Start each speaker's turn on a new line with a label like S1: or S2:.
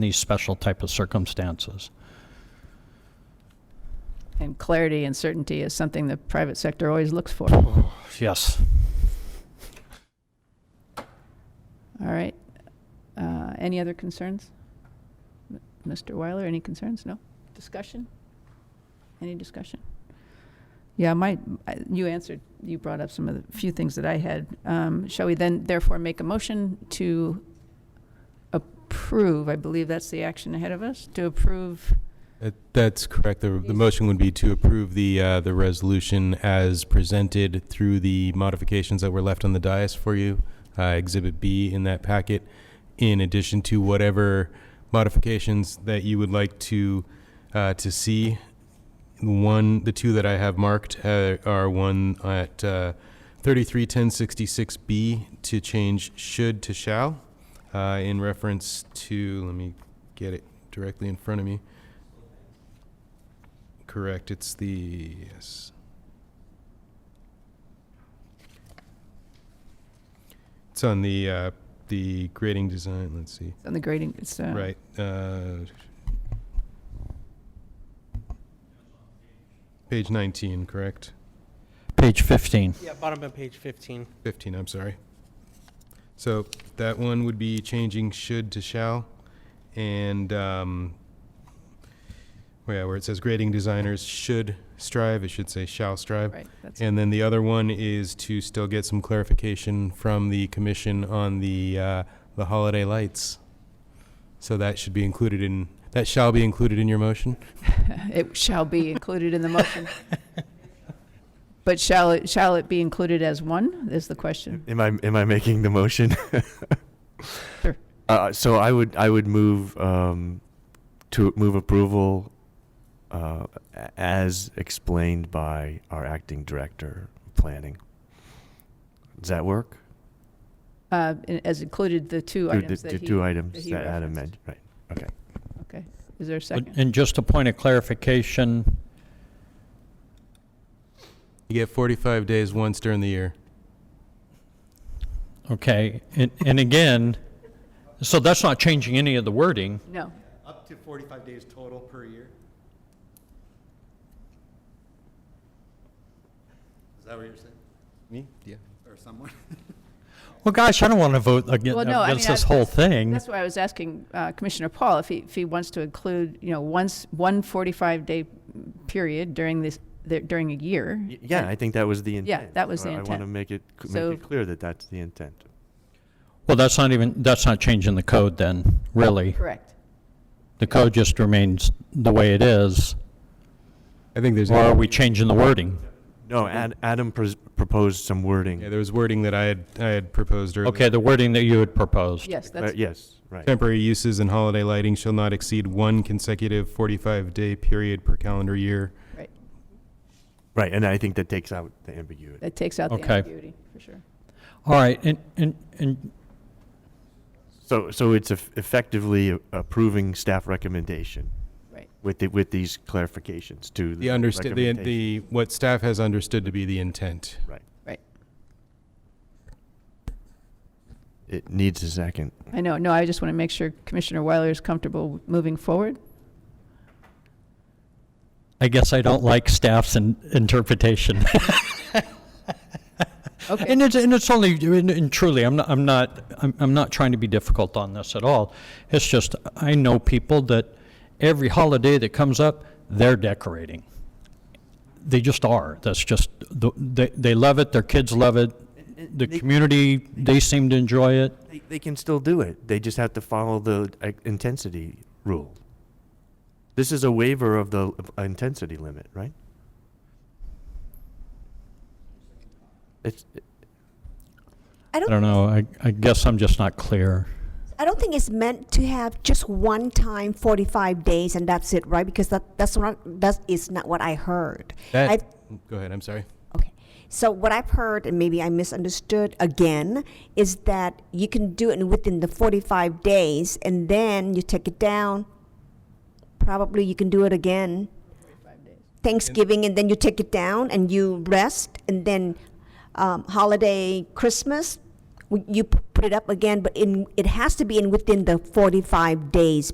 S1: these special type of circumstances.
S2: And clarity and certainty is something the private sector always looks for.
S1: Yes.
S2: All right. Uh, Any other concerns? M- Mr. Weiler, any concerns? No? Discussion? Any discussion? Yeah, my, I- you answered, you brought up some of the few things that I had. Um, Shall we then therefore make a motion to approve, I believe that's the action ahead of us, to approve,
S3: That- Uh, That's correct. The, the motion would be to approve the, uh, the resolution as presented through the modifications that were left on the dais for you, uh, Exhibit B in that packet, in addition to whatever modifications that you would like to, uh, to see. One, the two that I have marked, uh, are one at, uh, thirty-three ten sixty-six B to change should to shall, uh, in reference to, let me get it directly in front of me. Correct, it's the, yes. It's on the, uh, the grading design, let's see,
S2: on the grading, it's, uh,
S3: right, uh. Page nineteen, correct?
S1: Page 15.
S4: Yeah, bottom of page 15.
S3: Fifteen, I'm sorry. So that one would be changing should to shall, and, um, yeah, where it says grading designers should strive, it should say shall strive.
S2: Right, that's,
S3: And then the other one is to still get some clarification from the commission on the, uh, the holiday lights. So that should be included in, that shall be included in your motion?
S2: it shall be included in the motion. But shall it, shall it be included as one, is the question?
S5: Am I am I making the motion?
S2: Sure.
S5: Uh, so I would I would move um, to move approval uh, a- as explained by our acting director of planning. Does that work?
S2: Uh, and As included the two
S5: Two-
S2: items
S5: the-
S2: that
S5: the
S2: he.
S5: two items
S2: he
S5: that Adam
S2: referenced.
S5: mentioned. Right. Okay.
S2: Okay, is there a second?
S1: And just a point of clarification,
S3: You get forty-five days once during the year.
S1: okay, and, and again, so that's not changing any of the wording.
S2: No,
S6: Up to 45 days total per year? Is that what you're saying?
S3: Me? Yeah.
S6: Or someone?
S1: Well, gosh, I don't want to vote against,
S2: Well, no, I
S1: against
S2: mean,
S1: this
S2: I-
S1: whole thing.
S2: that's why I was asking uh, Commissioner Paul if he, if he wants to include, you know, once, one 45-day period during this, the- during a year.
S5: Y- yeah, I think that was the intent.
S2: that was
S5: So
S2: the
S5: I want to
S2: intent.
S5: make it c- make
S2: So-
S5: it clear that that's the intent.
S1: Well, that's not even, that's not changing the code then, really.
S2: Correct.
S1: The code just remains the way it is,
S3: I think there's.
S1: or are we changing the wording?
S5: No, Ad, Adam pres- proposed some wording.
S3: Yeah, there was wording that I had, I had proposed earlier.
S1: Okay, the wording that you had proposed.
S2: Yes,
S5: Uh,
S2: that's,
S5: yes, right.
S3: Temporary uses and holiday lighting shall not exceed one consecutive forty-five day period per calendar year.
S2: right.
S5: Right, and I think that takes out the ambiguity.
S2: That takes out the
S1: Okay.
S2: ambiguity, for sure.
S1: All right, and, and, and,
S5: So, so it's eff- effectively approving staff recommendation
S2: Right,
S5: with the, with these clarifications to
S3: The understa, the,
S5: recommendation.
S3: the, what staff has understood to be the intent.
S5: Right.
S2: right.
S5: It needs a second.
S2: I know, no, I just want to make sure Commissioner Weiler is comfortable moving forward.
S1: I guess I don't like staff's in- interpretation.
S2: Okay,
S1: And it's, and it's only, and, and truly, I'm not, I'm not, I'm, I'm not trying to be difficult on this at all. It's just, I know people that every holiday that comes up, they're decorating. They just are. That's just, the- they, they love it, their kids love it, the
S5: they-
S1: community, they seem to enjoy it.
S5: They, they can still do it. They just have to follow the uh, intensity rule. This is a waiver of the of intensity limit, right? It's,
S7: I
S1: I
S7: don't,
S1: don't know, I, I guess I'm just not clear.
S7: I don't think it's meant to have just one time 45 days and that's it, right? Because that, that's not, that is not what I heard. I,
S3: That, go ahead, I'm sorry.
S7: okay. So what I've heard, and maybe I misunderstood again, is that you can do it within the 45 days and then you take it down. Probably you can do it again. Thanksgiving, and then you take it down and you rest, and then um, holiday, Christmas, w- you p- put it up again, but in, it has to be in within the 45 days